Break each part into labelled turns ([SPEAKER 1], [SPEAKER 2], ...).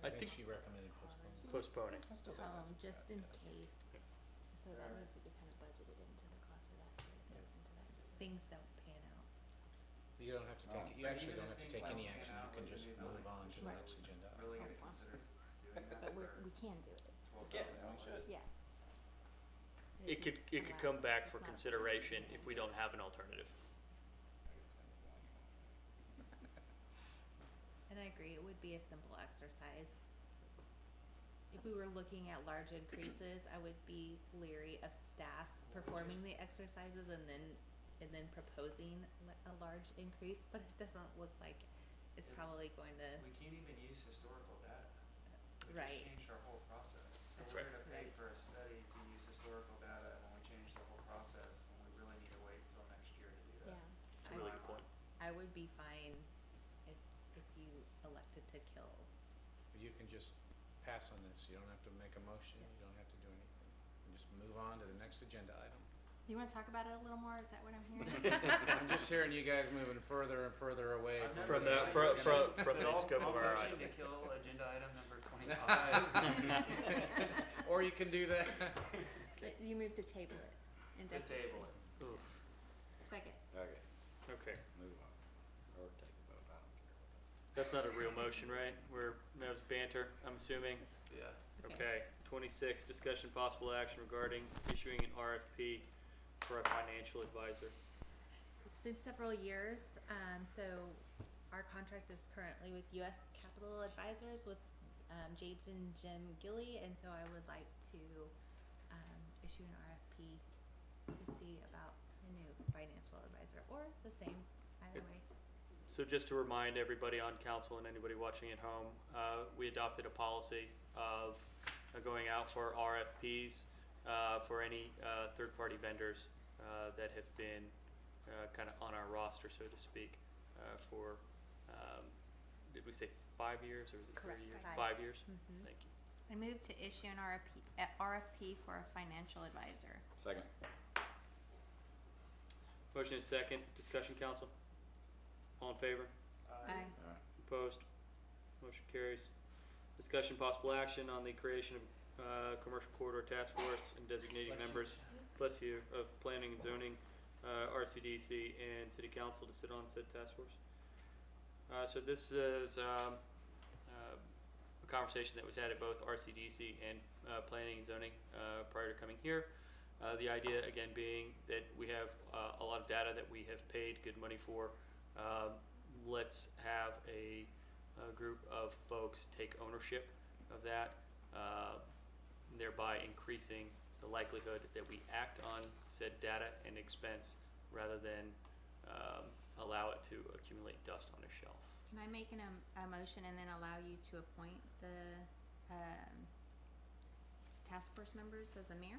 [SPEAKER 1] I think
[SPEAKER 2] she recommended postponing.
[SPEAKER 1] postponing.
[SPEAKER 2] Let's do that,
[SPEAKER 3] Um,
[SPEAKER 2] that's
[SPEAKER 3] just in
[SPEAKER 2] bad.
[SPEAKER 3] case, so that needs to be kind of budgeted into the cost of that, so it goes into that, things don't pan out.
[SPEAKER 2] You don't have to
[SPEAKER 4] Oh.
[SPEAKER 2] take, you
[SPEAKER 5] But
[SPEAKER 2] actually
[SPEAKER 5] even
[SPEAKER 2] don't have
[SPEAKER 5] if
[SPEAKER 2] to
[SPEAKER 5] things
[SPEAKER 2] take
[SPEAKER 5] don't
[SPEAKER 2] any
[SPEAKER 5] pan
[SPEAKER 2] action,
[SPEAKER 5] out,
[SPEAKER 2] you can
[SPEAKER 5] like
[SPEAKER 2] just
[SPEAKER 5] maybe
[SPEAKER 2] move
[SPEAKER 5] like
[SPEAKER 2] on to the
[SPEAKER 3] Right.
[SPEAKER 2] next agenda.
[SPEAKER 5] Really
[SPEAKER 3] Oh,
[SPEAKER 5] gonna
[SPEAKER 3] wow.
[SPEAKER 5] consider doing that
[SPEAKER 3] But we're,
[SPEAKER 5] for
[SPEAKER 3] we can do it,
[SPEAKER 5] twelve
[SPEAKER 2] Yeah,
[SPEAKER 5] thousand
[SPEAKER 2] we
[SPEAKER 5] dollars?
[SPEAKER 2] should.
[SPEAKER 3] yeah. But
[SPEAKER 1] It could,
[SPEAKER 3] just
[SPEAKER 1] it could
[SPEAKER 3] allows
[SPEAKER 1] come
[SPEAKER 3] us-
[SPEAKER 1] back
[SPEAKER 3] it's
[SPEAKER 1] for
[SPEAKER 3] not a permanent
[SPEAKER 1] consideration
[SPEAKER 3] thing.
[SPEAKER 1] if we don't have an alternative.
[SPEAKER 3] And I agree, it would be a simple exercise. If we were looking at large increases, I would be leery of staff performing the exercises and then, and then proposing li- a large increase, but it doesn't look like it's
[SPEAKER 5] It-
[SPEAKER 3] probably going to,
[SPEAKER 5] We can't even use historical data. We
[SPEAKER 3] Right.
[SPEAKER 5] just changed our whole process. So
[SPEAKER 1] That's
[SPEAKER 5] we're
[SPEAKER 1] right.
[SPEAKER 5] gonna pay
[SPEAKER 3] Right.
[SPEAKER 5] for a study to use historical data when we change the whole process, when we really need to wait till next year to do
[SPEAKER 3] yeah.
[SPEAKER 5] that.
[SPEAKER 1] It's
[SPEAKER 3] I
[SPEAKER 1] a really
[SPEAKER 3] would-
[SPEAKER 1] good point.
[SPEAKER 3] I would be fine if, if you elected to kill,
[SPEAKER 2] You can just pass on this, you don't have to make a motion, you don't have to do anything. You Just move on to the next agenda item.
[SPEAKER 6] You wanna talk about it a little more, is that what I'm hearing?
[SPEAKER 2] I'm just hearing you guys moving further and further away
[SPEAKER 5] I've
[SPEAKER 1] From the,
[SPEAKER 5] never-
[SPEAKER 2] what
[SPEAKER 1] from,
[SPEAKER 2] we're
[SPEAKER 1] from,
[SPEAKER 2] gonna-
[SPEAKER 1] from the
[SPEAKER 5] I'll-
[SPEAKER 1] scope of our
[SPEAKER 5] I'll
[SPEAKER 1] item.
[SPEAKER 5] motion to kill agenda item number twenty-five.
[SPEAKER 2] Or you can do that.
[SPEAKER 6] But you moved to table it
[SPEAKER 5] To table
[SPEAKER 6] indefinitely.
[SPEAKER 5] it.
[SPEAKER 1] Oof.
[SPEAKER 6] Second.
[SPEAKER 4] Okay,
[SPEAKER 1] Okay,
[SPEAKER 4] move on, or take a vote, I don't care.
[SPEAKER 1] that's not a real motion, right? We're, that was banter, I'm assuming.
[SPEAKER 5] Yeah.
[SPEAKER 1] Okay, twenty-six, discussion possible action regarding issuing an RFP for a financial advisor.
[SPEAKER 3] It's been several years, um, so our contract is currently with US Capital Advisors with, um, Jade's and Jim Gilly, and so I would like to, um, issue an RFP to see about a new financial advisor, or the same, either
[SPEAKER 1] Yep.
[SPEAKER 3] way.
[SPEAKER 1] So just to remind everybody on council and anybody watching at home, uh, we adopted a policy of uh, going out for RFPs uh, for any uh, third-party vendors uh, that have been uh, kind of on our roster, so to speak, uh, for, um, did we say five years or was it three
[SPEAKER 3] Correct,
[SPEAKER 1] years?
[SPEAKER 3] five.
[SPEAKER 1] Five years?
[SPEAKER 3] Mhm.
[SPEAKER 1] Thank you.
[SPEAKER 6] Mm-hmm. I moved to issue an RFP, uh, RFP for a financial advisor.
[SPEAKER 4] Second.
[SPEAKER 1] Motion is second. Discussion, council? All in favor?
[SPEAKER 5] Uh,
[SPEAKER 4] Alright,
[SPEAKER 1] Opposed? Motion carries. Discussion possible action on the creation of, uh, commercial corridor task force and designating members, bless you, of planning and zoning, uh, RCDC and city council to sit on said task force. Uh, so this is, um, uh, a conversation that was had at both RCDC and, uh, planning and zoning, uh, prior to coming here. Uh, the idea again being that we have, uh, a lot of data that we have paid good money for. Um, let's have a, a group of folks take ownership of that, uh, thereby increasing the likelihood that we act on said data and expense rather than um, allow it to accumulate dust on a shelf.
[SPEAKER 6] Can I make an, um, a motion and then allow you to appoint the, um, task force members as a mayor?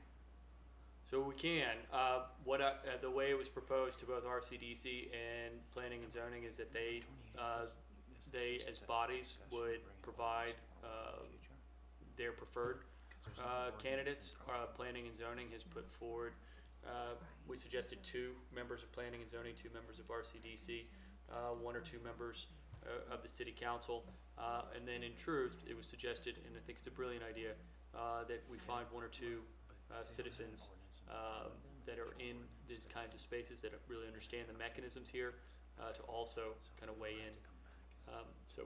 [SPEAKER 1] So we can. Uh, what I, uh, the way it was proposed to both RCDC and Planning and Zoning is that they uh, they as bodies would provide uh, their preferred uh, candidates. Uh, planning and zoning has put forward. Uh, we suggested two members of planning and zoning, two members of RCDC, uh, one or two members uh, of the city council, uh, and then in truth, it was suggested, and I think it's a brilliant idea, uh, that we find one or two uh, citizens um, that are in these kinds of spaces that really understand the mechanisms here uh, to also kind of weigh in. Um, so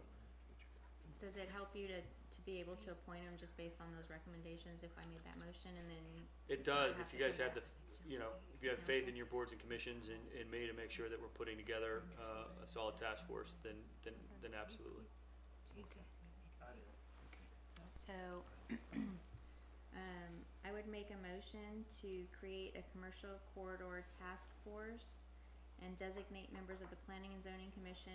[SPEAKER 6] Does it help you to, to be able to appoint them just based on those recommendations if I made that motion and then?
[SPEAKER 1] It does,
[SPEAKER 6] have
[SPEAKER 1] if
[SPEAKER 6] to
[SPEAKER 1] you guys
[SPEAKER 6] come
[SPEAKER 1] have the,
[SPEAKER 6] back.
[SPEAKER 1] f- you know, if you have faith in your boards and commissions and, and me to make sure that we're putting together, uh, a solid task force, then, then, then absolutely.
[SPEAKER 5] I do.
[SPEAKER 6] So, um, I would make a motion to create a commercial corridor task force and designate members of the Planning and Zoning Commission,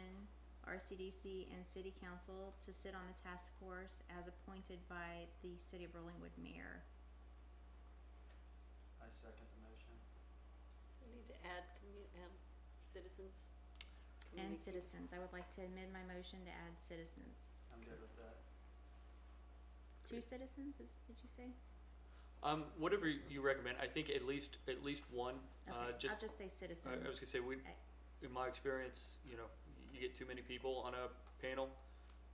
[SPEAKER 6] RCDC, and City Council to sit on the task force as appointed by the City of Rollingwood Mayor.
[SPEAKER 5] I second the motion.
[SPEAKER 7] We need to add commu- um, citizens.
[SPEAKER 6] And
[SPEAKER 7] community-
[SPEAKER 6] citizens, I would like to amend my motion to add citizens.
[SPEAKER 5] I'm good with that.
[SPEAKER 6] Two citizens, is, did you say?
[SPEAKER 1] Um, whatever you recommend, I think at least, at least one, uh,
[SPEAKER 6] Okay,
[SPEAKER 1] just,
[SPEAKER 6] I'll just say
[SPEAKER 1] I, I was
[SPEAKER 6] citizens.
[SPEAKER 1] gonna say, we,
[SPEAKER 6] I-
[SPEAKER 1] in my experience, you know, you get too many people on a panel,